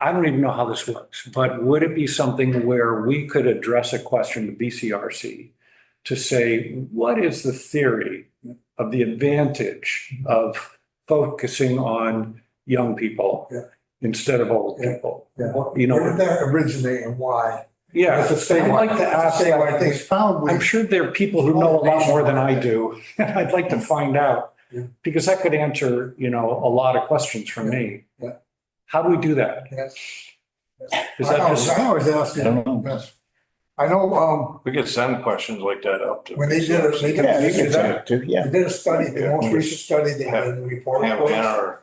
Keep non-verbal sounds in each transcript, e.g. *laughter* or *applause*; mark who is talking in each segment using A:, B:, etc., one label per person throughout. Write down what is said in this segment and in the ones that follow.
A: I don't even know how this works, but would it be something where we could address a question to BCRC to say, what is the theory of the advantage of focusing on young people
B: Yeah.
A: instead of old
B: Yeah.
A: people?
B: Yeah.
A: What- You
B: Where
A: know,
B: did that originate and why?
A: yeah, I'd like to ask
B: Say,
A: that.
B: I think probably.
A: I'm sure there are people who know a lot more than I do. *laughs* I'd like to find out.
B: Yeah.
A: Because that could answer, you know, a lot of questions for me.
B: Yeah.
A: How do we do that?
B: That's-
A: Is that
B: I always-
A: just?
B: I always ask
C: I don't
B: you.
C: know.
B: that's- I know, um,
D: We could send questions like that up to.
B: when they did it, they did
C: Yeah,
B: they
C: you
B: did
C: can
B: that.
C: talk to, yeah.
B: They did a study, the most
D: Yeah.
B: recent study they did in the report.
D: Have
B: was-
D: Anna or.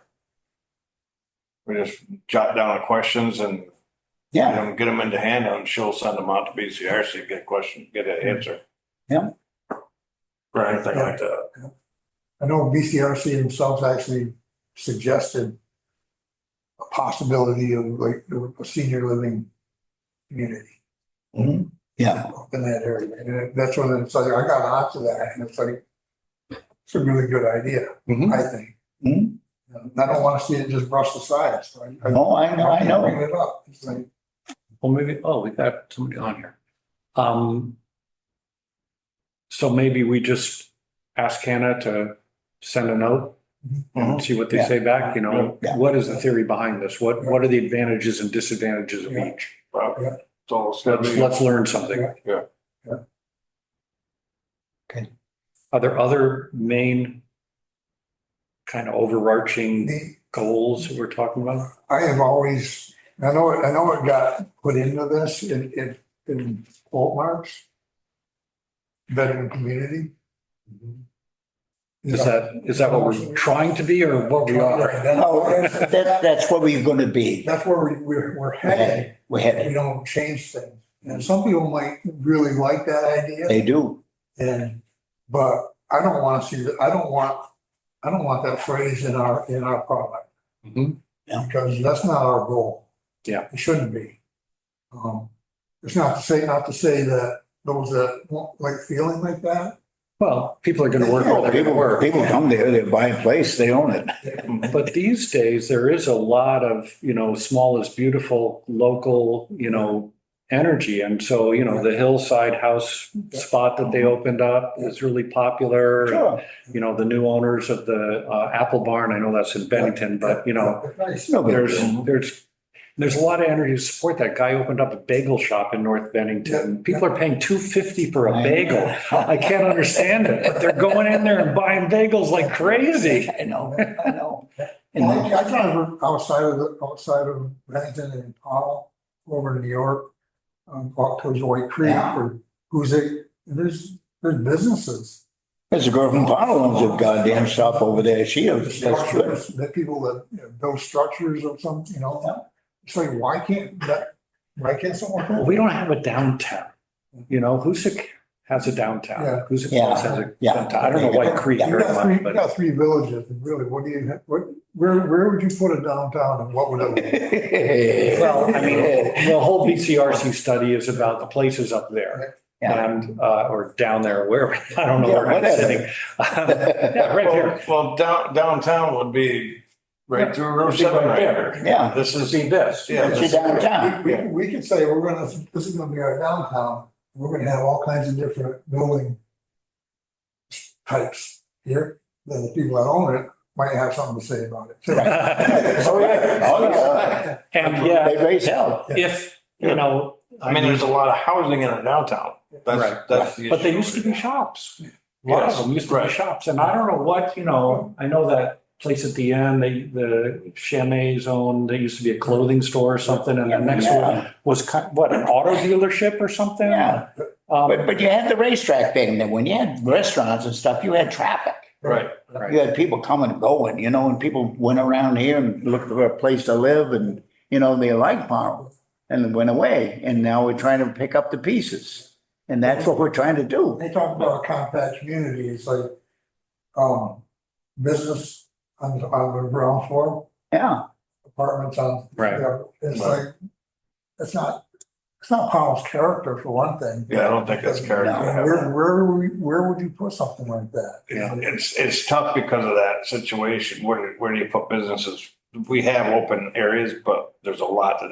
D: We just jot down the questions and you
C: Yeah,
D: know, get them into handout and she'll send them out to BCRC, get a question, get an answer.
C: Yeah.
D: Or anything like that.
B: I know BCRC themselves actually suggested a possibility of like a senior living community
A: Mm-hmm.
C: Mhm. yeah.
B: up in that area. And that's when it's like, I got onto that and it's like, it's a really good idea,
A: Mhm.
B: I think.
C: Mhm.
B: And I don't want to see it just brushed aside, so I. I-
C: Oh, I know, I
B: Bring
C: know.
B: it up. It's like,
A: Well, maybe, oh, we got somebody on here. Um. So maybe we just ask Hannah to send a note and see what they
C: Yeah.
A: say back, you know?
C: Yeah.
A: What is the theory behind this? What, what are the advantages and disadvantages of
B: Yeah.
A: each?
D: Well,
B: Yeah.
D: it's all it's gotta
A: Let's,
D: be-
A: let's learn something.
D: Yeah.
B: Yeah.
C: Okay.
A: Are there other main kind of overarching
B: the-
A: goals that we're talking about?
B: I have always, I know, it- I know it got put into this in, in, in quote marks. Veteran community.
A: Mm-hmm. Is that, is that what we're trying to be or what we are?
C: No, that's, that- that's where we're gonna be.
B: That's where we, we're, we're headed.
C: We're
B: We
C: headed.
B: don't change things. And some people might really like that idea
C: They do.
B: and, but I don't want to see, that. I don't want, I don't want that phrase in our, in our product.
A: Mhm.
B: because that's not our goal.
A: Yeah.
B: It shouldn't be. Um, it's not to say, not to say that those that won't like feeling like that,
A: Well, people are going to work where they're going to
C: People,
A: work.
C: people come there, they buy a place, they own it.
A: But these days, there is a lot of, you know, small is beautiful, local, you know, energy. And so, you know, the hillside house spot that they opened up is really popular.
C: Sure,
A: You know, the new owners of the uh, Apple Barn, I know that's in Bennington, but, you know,
B: it's nice.
C: it's no big
A: there's,
C: deal.
A: there's, there's a lot of energy to support that. Guy opened up a bagel shop in North Bennington. People are paying two fifty for a bagel. *laughs* I can't understand it, but they're going in there and buying bagels like crazy.
C: I know, I know. And
B: Well, I
C: then-
B: I drive outside of, the outside of Bennington and Powell, over to New York, um, up towards White Creek
C: Yeah.
B: or who's it, there's, there's businesses.
C: There's a girl from Powell owns a goddamn shop over there. She
B: There's
C: is, that's good.
B: structures, The people that you know, build structures or something, you
C: Yeah.
B: know, it's like, why can't that, why can't someone?
A: Well, We don't have a downtown, you know, Hoosick has a
B: Yeah.
A: downtown, Hoosick
C: Yeah.
A: Falls has a
C: Yeah.
A: downtown, I don't know White Creek
C: Yeah.
B: You
A: very
B: got three,
A: much,
B: you
A: but
B: got three villages, and really, what do you, ha- what, where, where would you put a downtown and what would it?
A: *laughs* well, I mean, the whole BCRC study is about the places up there.
C: Yeah.
A: And, uh, or down there, where, I don't know
C: Yeah,
A: where I'm
C: whatever.
A: sitting. *laughs* Yeah, right
D: Well,
A: there,
D: well, down, downtown would be right through Route
A: It'd be right
D: seven right
A: there.
D: there.
C: Yeah,
D: This is,
A: see this,
D: yeah,
C: it's your
D: this-
C: downtown.
B: We, we- we could say, we're gonna, this is gonna be our downtown, we're gonna have all kinds of different building types here, then the people that own it might have something to say about it. too.
C: Right.
D: Oh, yeah.
C: Oh, yeah.
A: *laughs* And yeah,
C: They raise hell.
A: if, you know,
D: I mean, there's a lot of housing in our downtown. That's,
A: Right.
D: that's. the
A: But they
D: issue.
A: used to be shops. A lot of them used to be
D: Yes, right.
A: shops, and I don't know what, you know, I know that place at the end, they, the Chamay's owned, there used to be a clothing store or something, and the next one
C: Yeah.
A: was ki- what, an auto dealership or something?
C: Yeah. But,
A: Um,
C: but you had the racetrack thing, then when you had restaurants and stuff, you had traffic.
D: Right.
C: You had people coming and going, you know, and people went around here and looked for a place to live and, you know, they liked Powell and went away. And now we're trying to pick up the pieces. And that's what we're trying to do.
B: They talk about a compact community, it's like, um, business on, the- on the ground floor,
C: Yeah,
B: apartments on
A: Right,
B: Yeah, it's
D: Right.
B: like, it's not, it's not Powell's character for one thing.
D: Yeah, I don't think that's character.
C: No.
D: to
B: And
D: have that.
B: Where, where, would we- where would you put something like that?
A: Yeah.
D: It's, it's tough because of that situation. Where, do- where do you put businesses we have open areas, but there's a lot that